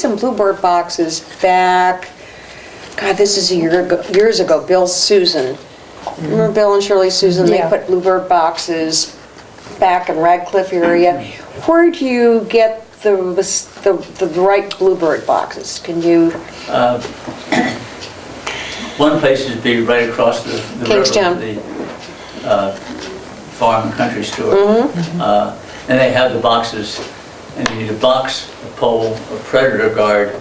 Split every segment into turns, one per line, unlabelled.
some bluebird boxes back, God, this is a year ago, years ago, Bill Susan. Remember Bill and Shirley Susan, they
Yeah.
put bluebird boxes back in Radcliffe area. Where do you get the, the, the right bluebird boxes? Can you,
One place would be right across the the river.
Kingstown.
The uh, farm and country store.
Mm-hmm.
Uh, And they have the boxes, and you need a box, a pole, a predator guard,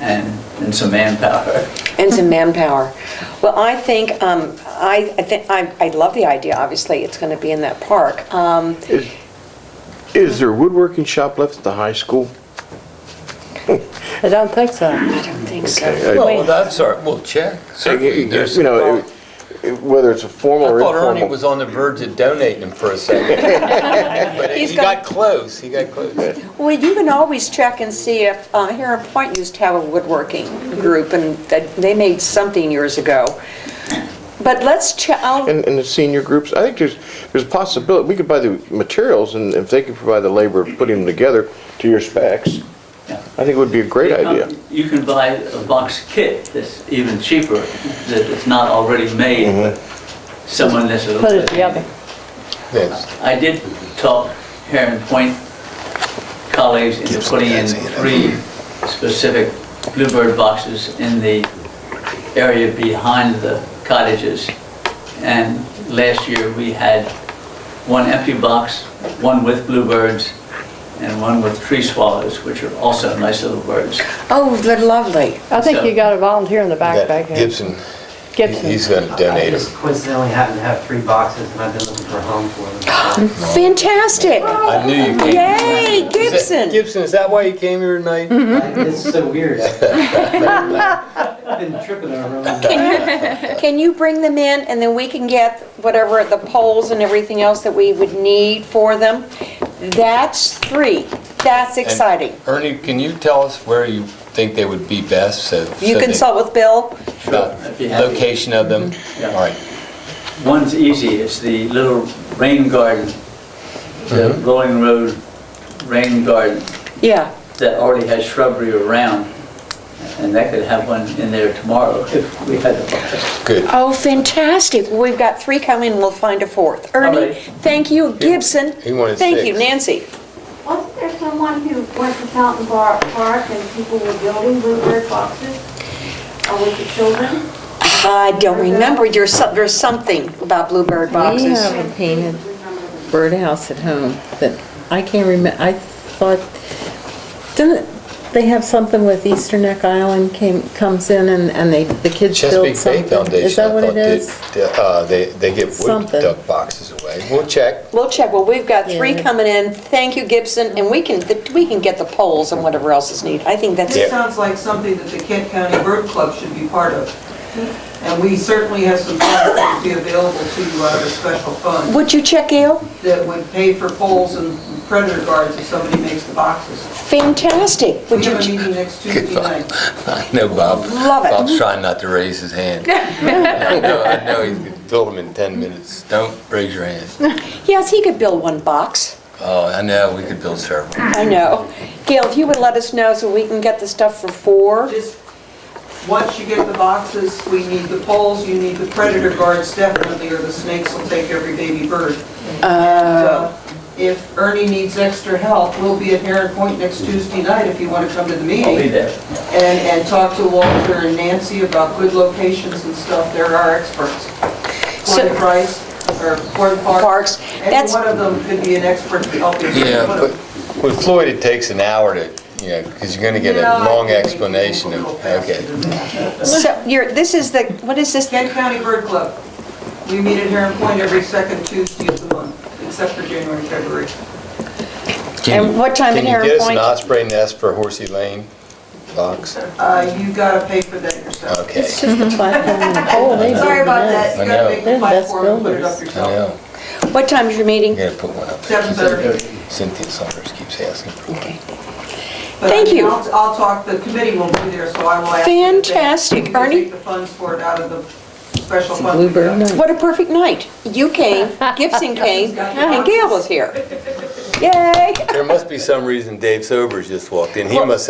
and, and some manpower.
and some manpower? Well, I think, um, I, I think, I, I love the idea, obviously, it's gonna be in that park. Um,
Is is there a woodworking shop left at the high school?
I don't think so.
I don't think so.
Okay, I-
Well, that's all right, we'll check, certainly. There's-
You know, it- whether it's a formal or
I thought Ernie
informal.
was on the verge of donating them for a second. But
He's
he got close, he got close.
Well, you can always check and see if, uh, Heron Point used to have a woodworking group, and that- they made something years ago. But let's oh, check, I'll-
And, and the senior groups, I think there's, there's a possibility, we could buy the materials and if they could provide the labor of putting them together to your specs,
Yeah.
I think it would be a great
You come-
idea.
Um, You can buy a box kit that's even cheaper, that is not already made, but
Mm-hmm.
someone that's a little
Put it
bit-
together.
Yes.
I did talk Heron Point colleagues into putting in three specific bluebird boxes in the area behind the cottages. And last year, we had one empty box, one with bluebirds, and one with tree swallows, which are also nice little birds.
oh, they're lovely.
I think you got a volunteer in the back back there.
Gibson, he- he's
Gibson.
gonna donate
I
them.
just coincidentally happen to have three boxes, and I've been looking for a home for them. so-
Fantastic.
I knew you came.
Yay,
Is that-
Oh, Gibson.
Gibson, is that why you came here tonight?
Mm-hmm. It's so weird. I've been tripping over them.
Can you bring them in, and then we can get whatever, the poles and everything else that we would need for them? That's three. That's exciting.
Ernie, can you tell us where you think they would be best, so?
You
so they-
consult with Bill?
about
I'd be happy. Mm-hmm.
Location of them?
Yeah.
All right,
One's easy, it's the little rain garden, the Rolling Road rain garden.
Yeah.
that already has shrubbery around, and that could have one in there tomorrow if we had a
good.
Oh, fantastic. Well, We've got three coming, we'll find a fourth. Ernie,
right.
thank you. Gibson,
he wanted
thank you.
six.
Nancy?
Wasn't there someone who went to Fountain Bar- Park and people were building bluebird boxes uh, with the children?
I don't remember, there's some- there's something about bluebird
We
boxes.
have a painted birdhouse at home that I can't remember, I thought, didn't they have something with Easter Neck Island came, comes in and, and they, the kids build
Chesapeake Bay
something?
Foundation.
Is that
I
what
thought
it
did-
is?
did- Uh, they, they give wood
Something.
duck boxes away. We'll check.
We'll check, well, we've got three
Yeah.
coming in. Thank you, Gibson, and we can, we can get the polls and whatever else is needed. I think that's,
This sounds like something that the Kent County Bird Club should be part of. And we certainly have some funds that would be available to you out of a special fund
would you check, Gail?
that would pay for poles and predator guards if somebody makes the boxes.
Fantastic.
We
Would you,
have a
ch-
meeting next Tuesday night.
I know Bob.
Love it.
Bob's trying not to raise his hand. I know, I know, he's gonna build them in 10 minutes. Don't raise your hand.
yes, he could build one box,
Oh, I know, we could build several.
I know. Gail, if you would let us know so we can get the stuff for four.
Just, once you get the boxes, we need the poles, you need the predator guards definitely, or the snakes will take every baby bird. Oh. If Ernie needs extra help, we'll be at Heron Point next Tuesday night if you want to come to the meeting.
I'll be there.
and, and talk to Walter and Nancy about good locations and stuff, they're our experts.
So-
Corning Price, or Corn Park,
Parks,
any
that's,
one of them could be an expert to help you.
Yeah, but with Floyd, it takes an hour to, you know, because you're gonna get a
Yeah, I
long
think
explanation of,
we'll go faster
okay.
than that.
so, you're, this is the, what is this?
Kent County Bird Club, we meet at Heron Point every second Tuesday of the month, except for January, and February.
And what time in
Can you
Heron
get us an
Point?
osprey nest for Horsey Lane box?
Uh, you gotta pay for that yourself.
Okay,
It's just a platform and a pole, they
Sorry
build
about
that.
that, you
I
gotta
know.
make
They're the
the
best
platform and put it up
builders.
I
yourself.
know.
What time's your
You
meeting?
gotta put one up. there.
Seven thirty.
Cynthia Summers keeps asking for one.
Okay.
But I
Thank
mean,
you.
I'll, I'll talk, the committee will be there, so I will ask. them if they-
Fantastic.
if they
Ernie?
Take the funds for it out of the special fund. we
Bluebird
got.
Night.
What a perfect night. You came, Gibson came, and Gail was here. Yay!
There must be some reason Dave Sobers just walked in. He
Well-
must